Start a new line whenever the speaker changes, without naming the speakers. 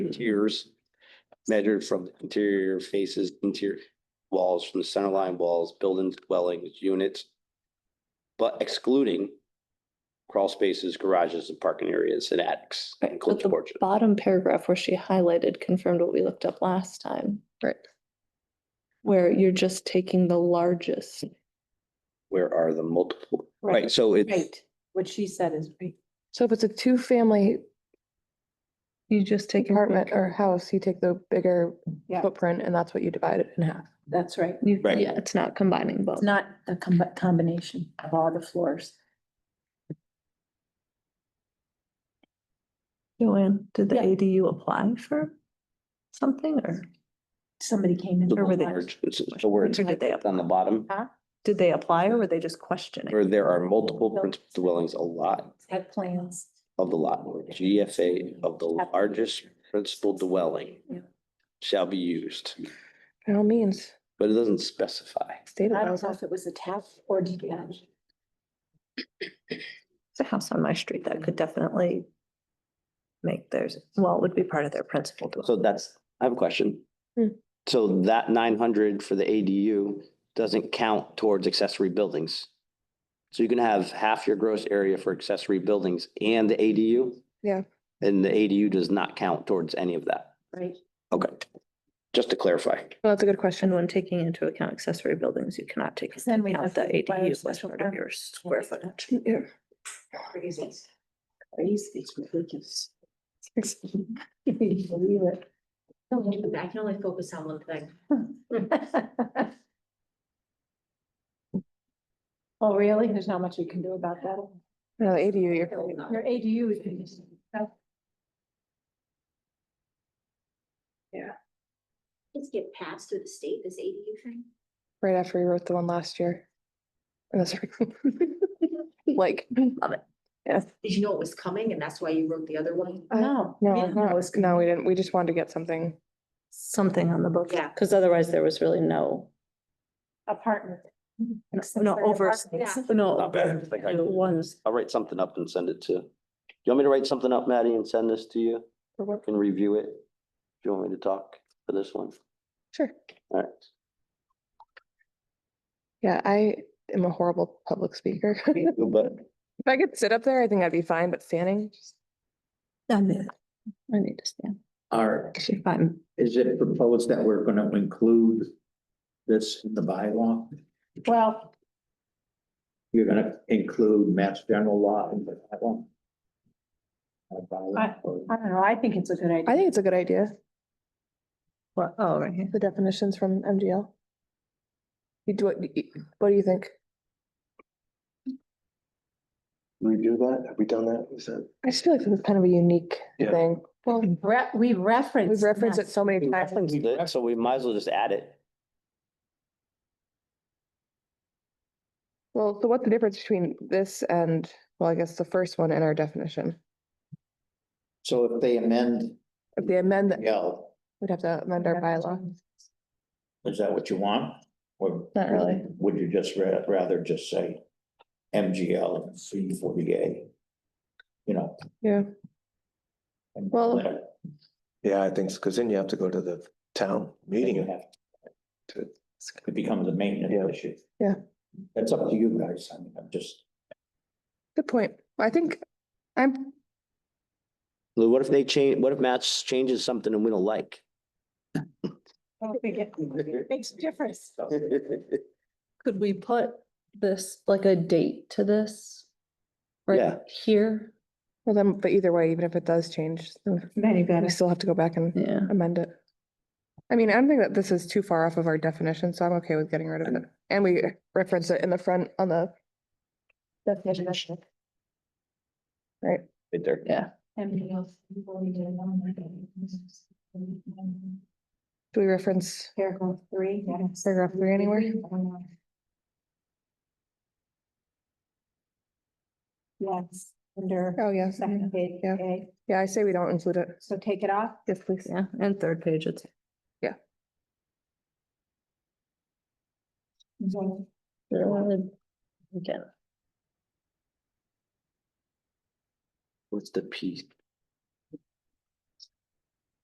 Mm-hmm.
tiers measured from interior faces, interior walls, from the center line walls, buildings, dwellings, units, but excluding crawl spaces, garages, and parking areas, and attics,
Right,
and
but
closed
the
porches.
Bottom paragraph where she highlighted confirmed what we looked up last time. Right. Where you're just taking the largest.
Where are the multiple,
Right.
right, so it's
Right, what she said is right.
So if it's a two-family
You just take.
apartment or house, you take the bigger
Yeah.
footprint and that's what you divide it in half.
That's right.
Right.
Yeah, it's not combining both.
It's not a combi- combination of all the floors.
Joanne, did
Yeah.
ADU apply for something or
Somebody came in.
the
Or were they-
large, it's- it's the words
Or did they
on the bottom,
did they apply or were they just questioning?
where there are multiple principal dwellings, a lot
Had plans.
of the lot, or GFA of the largest principal dwelling
Yeah.
shall be used,
By all means,
but it doesn't specify.
state it.
I don't
as
know
a-
if it was a tap or detached.
It's a house on my street that could definitely make theirs, well, it would be part of their principal. dwelling.
So that's, I have a question.
Hmm.
So that nine hundred for the ADU doesn't count towards accessory buildings. So you can have half your gross area for accessory buildings and the ADU?
Yeah.
And the ADU does not count towards any of that.
Right.
Okay. Just to clarify.
Well, that's a good question.
And when taking into account accessory buildings, you cannot take
Because then we
into
have
account
to
the
require
ADU as
special
part of
permit.
your square footage.
Crazy. Crazy, it's ridiculous. Can you believe it?
I can only focus on one thing.
Oh, really? There's not much you can do about that.
No, the ADU, you're, right.
Your ADU is.
Kids get passed through the state, this ADU thing.
right after we wrote the one last year. And that's like,
Did you know it was coming and that's why you wrote the other one?
No.
no,
yeah,
no, no, we didn't. We just wanted to get something.
Something on the book.
Yeah.
Because otherwise there was really no,
Apartment.
no over,
Yeah.
no.
Not bad. I think I-
Ones,
I'll write something up and send it to, you want me to write something up, Maddie, and send this to you?
For what?
Can review it? Do you want me to talk for this one?
Sure.
All right.
Yeah, I am a horrible public speaker. If
But
I could sit up there, I think I'd be fine, but standing, just-
I mean, I need to stand.
Are,
If I'm,
is it proposed that we're gonna include this in the bylaw?
Well,
You're gonna include Mass General Law in the bylaw? Our bylaw or-
I don't know. I think it's a good idea.
I think it's a good idea.
well, oh, right here.
The definitions from MGL. You do, what you- what do you think?
review that? Have we done that? Is that?
I just feel like this is kind of a unique
Yeah.
thing.
Well, re- we reference.
We've referenced it so many
we
times.
referenced it, so we might as well just add it.
Well, so what's the difference between this and, well, I guess the first one in our definition?
So if they amend
If they amend, that,
L,
we'd have to amend our bylaw.
is that what you want? Or
Not really.
would you just ra- rather just say MGL and C forty A? You know?
Yeah.
and
Well-
let-
Yeah, I think so, because then you have to go to the town meeting.
you
and
have to- It becomes a
Yeah.
maintenance issue.
Yeah.
That's up to you guys. I mean, I'm just.
Good point. I think I'm,
Lou, what if they change, what if Matt's changes something and we don't like?
Oh, Makes a difference.
Could we put this, like a date to this? Right
Yeah.
here?
well then, but either way, even if it does change, then
Then you
we
gotta,
still have to go back and
Yeah.
amend it. I mean, I don't think that this is too far off of our definition, so I'm okay with getting rid of it. And we reference it in the front on the definition. Right?
Right there.
anything else before we get along?
Do we reference
Paragraph three. yes.
Paragraph three anywhere?
Yes, under
Oh, yes.
second page,
Yeah.
okay,
Yeah, I say we don't include it.
so take it off.
Yes, please.
Yeah, and third page, it's Again,
Mm-hmm.
What's the P